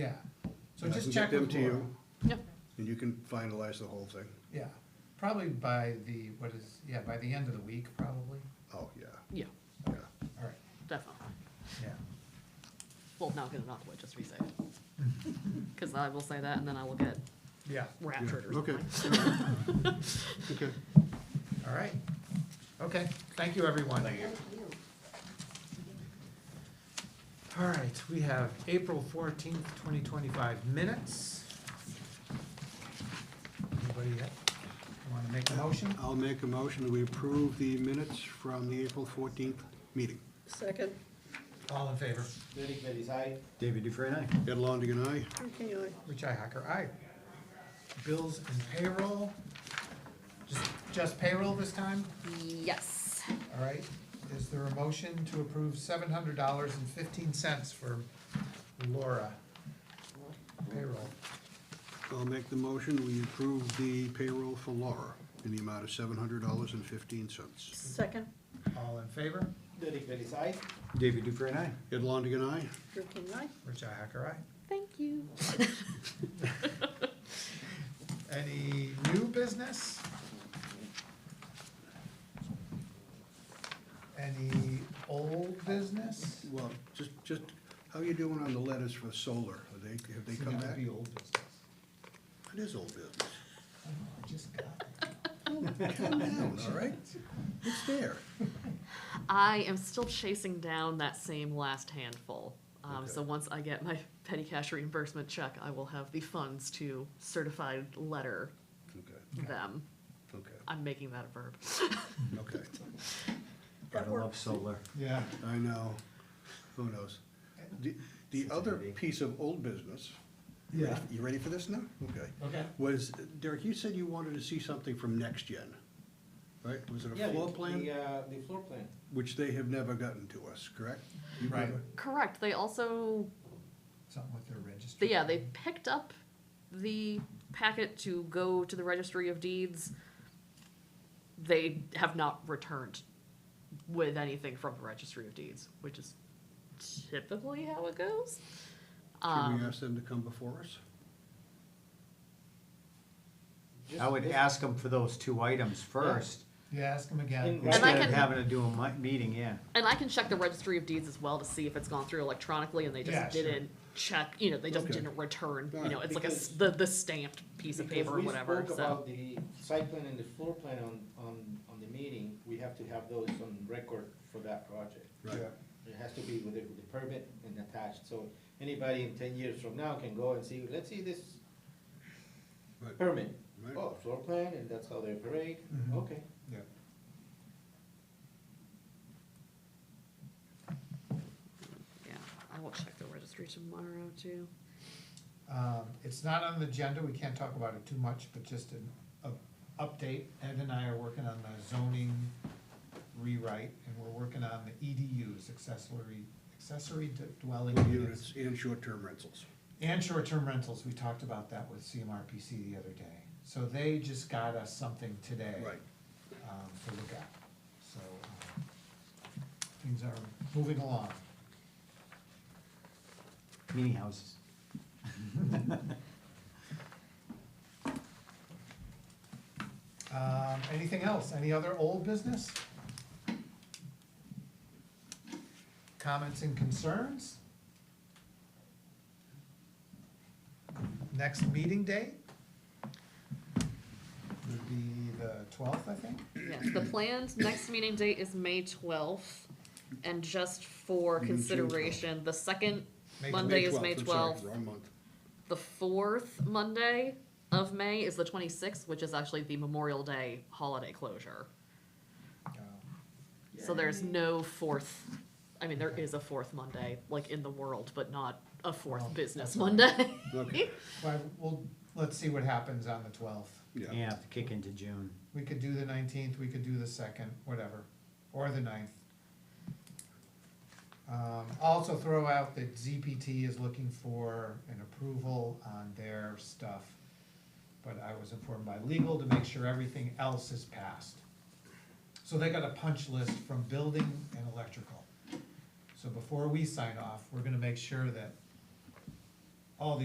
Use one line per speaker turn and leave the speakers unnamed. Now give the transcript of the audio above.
So
And I
just
can
check
get them
with
to
Laura.
you,
Yeah.
And you can finalize the whole thing.
Yeah, probably by the, what is, yeah, by the end of the week, probably,
Oh, yeah,
Yeah,
yeah.
all right,
definitely.
yeah.
Well, now get it off, just re-say it. Because I will say that, and then I will get
Yeah.
raptured or
Okay.
something.
Okay.
All right, okay, thank you, everyone. Thank you. All right, we have April fourteenth, twenty twenty-five minutes. Anybody want to make a motion?
I'll make a motion that we approve the minutes from the April fourteenth meeting.
Second,
All in favor?
Derek Bellis, aye.
David Dufresne, aye.
Ed Longigan, aye.
okay, aye.
Richi Hacker, aye. Bills and payroll, just, just payroll this time?
Yes.
All right, is there a motion to approve seven hundred dollars and fifteen cents for Laura? Payroll,
I'll make the motion, we approve the payroll for Laura in the amount of seven hundred dollars and fifteen cents.
Second,
all in favor?
Derek Bellis, aye.
David Dufresne, aye.
Ed Longigan, aye.
Drew King, aye.
Richi Hacker, aye.
Thank you.
Any new business? Any old business?
Well, just, just, how are you doing on the letters for solar? Are they, have they come back?
That'd be old business.
It is old business.
I don't know, I just got it.
Calm down, all right? It's there.
I am still chasing down that same last handful. Um, so once I get my petty cash reimbursement check, I will have the funds to certified letter
Okay,
them.
okay,
I'm making that a verb.
okay.
Gotta love
works.
solar.
Yeah.
I know. Who knows? The, the other piece of old business. you ready- You ready for this now? Okay.
Okay.
Was, Derek, you said you wanted to see something from Next Gen, right? Was it
Yeah,
a
the-
floor
The,
plan?
uh, the floor plan.
Which they have never gotten to us, correct? You've
Right.
never-
Correct. They also
Something with their registry.
But yeah, they picked up the packet to go to the registry of deeds. They have not returned with anything from the registry of deeds, which is typically how it goes.
Should we
Um,
ask them to come before us?
I would
Just-
ask them for those two items first,
Yeah, ask them again.
And-
I
instead of
can-
having to do a mi- meeting, yeah.
and I can check the registry of deeds as well to see if it's gone through electronically and they
Yeah,
just
sure.
didn't check, you know, they just
Okay.
didn't return, you
Alright,
know, it's like a, s-
because-
the, the stamped piece of paper or whatever,
Because we spoke
so.
about the site plan and the floor plan on, on, on the meeting, we have to have those on record for that project.
Right.
It has to be with the, with the permit and attached, so anybody in ten years from now can go and see, let's see this
Right.
permit.
Right.
Oh, floor plan, and that's how they operate,
Mm-hmm.
Mhm.
okay.
Yeah.
Yeah, I will check the registry tomorrow too.
Um, it's not on the agenda, we can't talk about it too much, but just an, a update, Ed and I are working on the zoning rewrite, and we're working on the EDUs, accessory, accessory d- dwelling
Units
units.
and short-term rentals.
And short-term rentals, we talked about that with CMRPC the other day, so they just got us something today.
Right.
Um, to look at, so, um, things are moving along.
Meeting houses.
Um, anything else? Any other old business? Comments and concerns? Next meeting date? Would be the twelfth, I think?
Yes, the planned next meeting date is May twelfth, and just for
June 12th.
consideration, the second
May-
Monday is May
12th, I'm sorry,
twelfth.
Wrong month.
The fourth Monday of May is the twenty-sixth, which is actually the Memorial Day holiday closure.
Um,
So there's no fourth, I mean, there is a fourth Monday, like in the world, but not a
Well,
fourth business
that's all right.
Monday.
Okay,
Well, we'll, let's see what happens on the twelfth.
yeah.
Yeah, have to kick into June.
We could do the nineteenth, we could do the second, whatever, or the ninth. Um, also throw out that ZPT is looking for an approval on their stuff. But I was informed by legal to make sure everything else is passed. So they got a punch list from building and electrical. So before we sign off, we're gonna make sure that